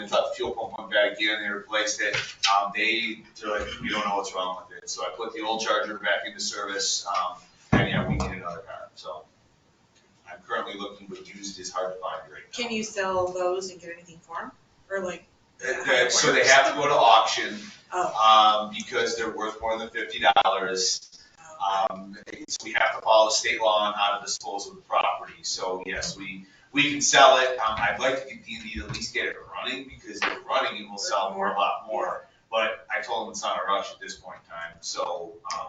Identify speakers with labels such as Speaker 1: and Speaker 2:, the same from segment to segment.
Speaker 1: they thought the fuel pump went bad again, they replaced it. Um, they, they're like, we don't know what's wrong with it, so I put the old charger back into service, um, and yeah, we need another car, so. I'm currently looking, but used is hard to find right now.
Speaker 2: Can you sell those and get anything for them? Or like,
Speaker 1: Uh, that- So they have to go to auction,
Speaker 2: oh,
Speaker 1: um, because they're worth more than fifty dollars.
Speaker 2: oh,
Speaker 1: Um, it's- we have to follow state law on how to dispose of the property, so yes, we, we can sell it, um, I'd like to continue to at least get it running, because if running, it will sell for a lot more. But I told them it's not a rush at this point in time, so, um,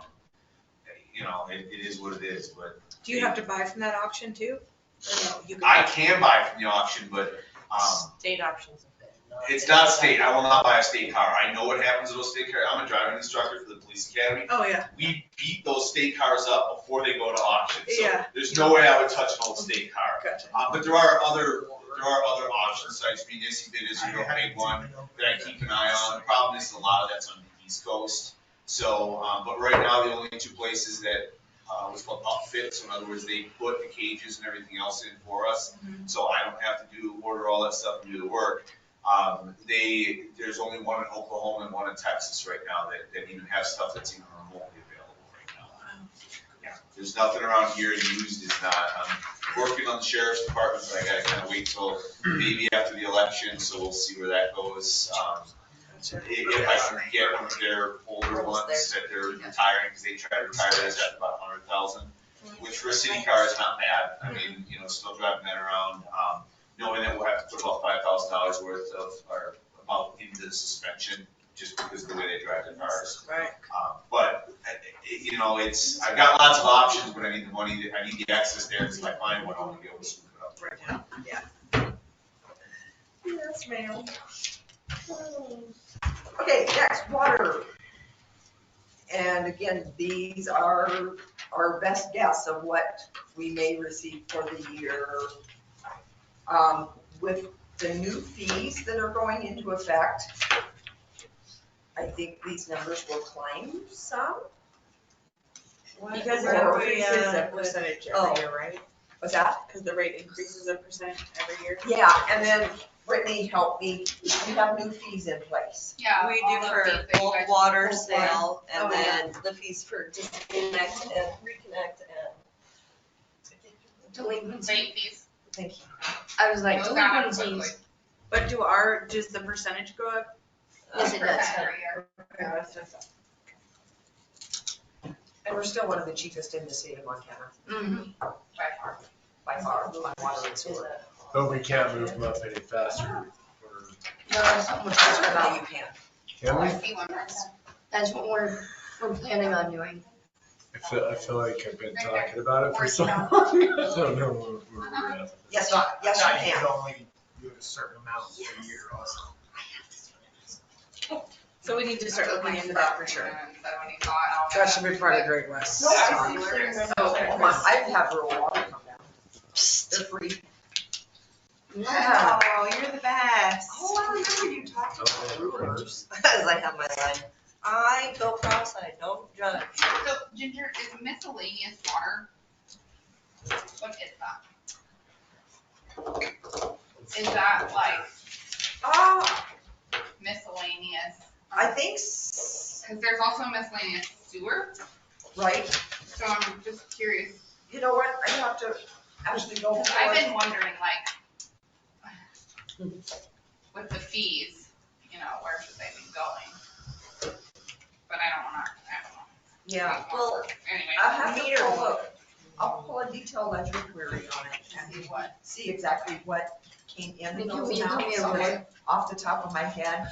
Speaker 1: you know, it, it is what it is, but
Speaker 2: do you have to buy from that auction too? Or no, you can?
Speaker 1: I can buy from the auction, but, um,
Speaker 3: State options. are good. No,
Speaker 1: it's not state, I will not buy a state car, I know what happens with a state car, I'm a driving instructor for the police academy,
Speaker 2: Oh, yeah,
Speaker 1: we beat those state cars up before they go to auction. So
Speaker 2: Yeah.
Speaker 1: There's no way I would touch an old state car.
Speaker 2: gotcha.
Speaker 1: Uh, but there are other, there are other auction sites, Munisi Bid is a real big one that I keep an eye on. The problem is a lot of that's on the East Coast. So, um, but right now, the only two places that, uh, was called upfit, so in other words, they put the cages and everything else in for us.
Speaker 2: Mhm.
Speaker 1: So I don't have to do, order all that stuff and do the work. Um, they, there's only one in Oklahoma and one in Texas right now that, that even have stuff that's even remotely available right now. Yeah, there's nothing around here used, it's not, I'm working on the sheriff's department, but I gotta kinda wait till maybe after the election, so we'll see where that goes. Um, i-
Speaker 2: Gotcha.
Speaker 1: If I can get one of their older ones that they're retiring, because they try to retire those at about a hundred thousand, which for a city car is not bad,
Speaker 4: Mm-hmm.
Speaker 1: I mean, you know, still driving that around, um, knowing that we'll have to put about five thousand dollars worth of, or about into the suspension, just because of the way they drive their cars.
Speaker 2: Right,
Speaker 1: Uh, But, uh, it- you know, it's, I've got lots of options, but I need the money, I need the access there, because if I find one, I want to be able to scoop it up.
Speaker 2: right now, yeah.
Speaker 5: Yes, ma'am. Okay, next, water. And again, these are our best guess of what we may receive for the year. Um, with the new fees that are going into effect, I think these numbers will climb some.
Speaker 2: You guys
Speaker 5: Or
Speaker 2: are increases
Speaker 5: increases
Speaker 2: a
Speaker 5: of-
Speaker 2: percentage
Speaker 5: oh.
Speaker 2: every year, right?
Speaker 5: What's that?
Speaker 2: Because the rate increases a percent every year.
Speaker 5: Yeah, and then Brittany helped me, we have new fees in place.
Speaker 6: Yeah.
Speaker 4: We
Speaker 6: all
Speaker 4: do
Speaker 6: the
Speaker 4: for
Speaker 6: fees that you
Speaker 4: bulk
Speaker 6: guys-
Speaker 4: water
Speaker 5: Bulk Oh,
Speaker 4: sale and
Speaker 5: yeah.
Speaker 4: then the fees for disconnect and reconnect and. uh, Delinquency.
Speaker 6: Rate these.
Speaker 5: Thank you.
Speaker 3: I was like,
Speaker 6: It's gone up
Speaker 3: delinquencies.
Speaker 6: quickly.
Speaker 2: But do our, does the percentage go up?
Speaker 3: Yes, it
Speaker 6: For
Speaker 3: does.
Speaker 6: every year.
Speaker 2: Yeah, that's what I thought.
Speaker 5: And we're still one of the cheapest in the state of Montana,
Speaker 6: Mm-hmm.
Speaker 3: Mhm.
Speaker 6: By far.
Speaker 5: by far, on water and
Speaker 4: Is
Speaker 5: sewer.
Speaker 4: that-
Speaker 7: But we can't move them up any faster.
Speaker 3: No, so much
Speaker 5: That's
Speaker 3: better.
Speaker 5: what you can.
Speaker 7: Can we?
Speaker 6: I see one that's-
Speaker 3: That's what we're, we're planning on doing.
Speaker 7: I feel, I feel like I've been talking about it for so long. I don't know where- where we're at. with
Speaker 5: Yes,
Speaker 7: this.
Speaker 5: you- yes, you
Speaker 8: I
Speaker 5: can.
Speaker 8: could only do a certain amount per year also.
Speaker 2: So we need to start looking into that for sure.
Speaker 6: And so when he saw it, I'll-
Speaker 2: That should be part of Great West.
Speaker 5: No, I
Speaker 6: It's
Speaker 2: Oh,
Speaker 5: Come on, I'd have rural water come down. They're free.
Speaker 2: Wow, you're the best.
Speaker 5: Oh, I remember you talked about rulers.
Speaker 4: As I have my line, I go cross, I don't judge.
Speaker 6: So Ginger, is miscellaneous water? What is that? Is that like
Speaker 5: Uh,
Speaker 6: miscellaneous?
Speaker 5: I think, s-
Speaker 6: Cause there's also miscellaneous sewer,
Speaker 5: right,
Speaker 6: so I'm just curious,
Speaker 5: you know what, I have to actually go
Speaker 6: cause
Speaker 5: for
Speaker 6: I've
Speaker 5: it.
Speaker 6: been wondering like with the fees, you know, where should they be going? But I don't wanna, I don't know.
Speaker 5: Yeah,
Speaker 4: Well,
Speaker 6: Anyway.
Speaker 5: I'll have to
Speaker 4: Meter.
Speaker 5: pull up, I'll pull a detailed ledger query on it and
Speaker 6: See what?
Speaker 5: see exactly what came in
Speaker 3: Can
Speaker 5: those
Speaker 3: you do me
Speaker 5: amounts.
Speaker 3: a
Speaker 5: Okay,
Speaker 3: favor?
Speaker 5: Off the top of my head.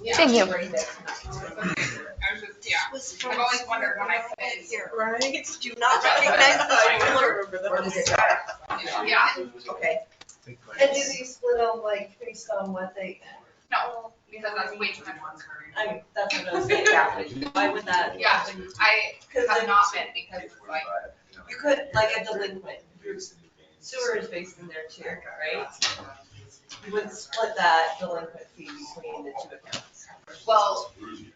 Speaker 6: Yeah.
Speaker 9: Thank you.
Speaker 5: Right, that's not-
Speaker 6: I was just, yeah, I've always wondered when I fit here.
Speaker 2: Right?
Speaker 4: Do not recognize the ruler.
Speaker 5: Where does it go?
Speaker 6: Yeah,
Speaker 5: Okay,
Speaker 7: Think like
Speaker 4: And do they split them like based on what they?
Speaker 6: No, because that's way too much work.
Speaker 4: I, that's what I was saying, why would that?
Speaker 6: Yeah. I
Speaker 4: Cause
Speaker 6: have
Speaker 4: then
Speaker 6: not been because it's like,
Speaker 4: you could, like a delinquent, sewer is based in there too, right? You would split that delinquent fee between the two accounts.
Speaker 6: well,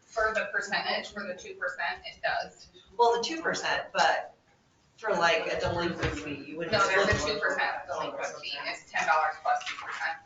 Speaker 6: for the percentage, for the two percent, it does.
Speaker 4: Well, the two percent, but for like a delinquent fee, you would.
Speaker 6: No, there's a two percent delinquent fee, it's ten dollars plus two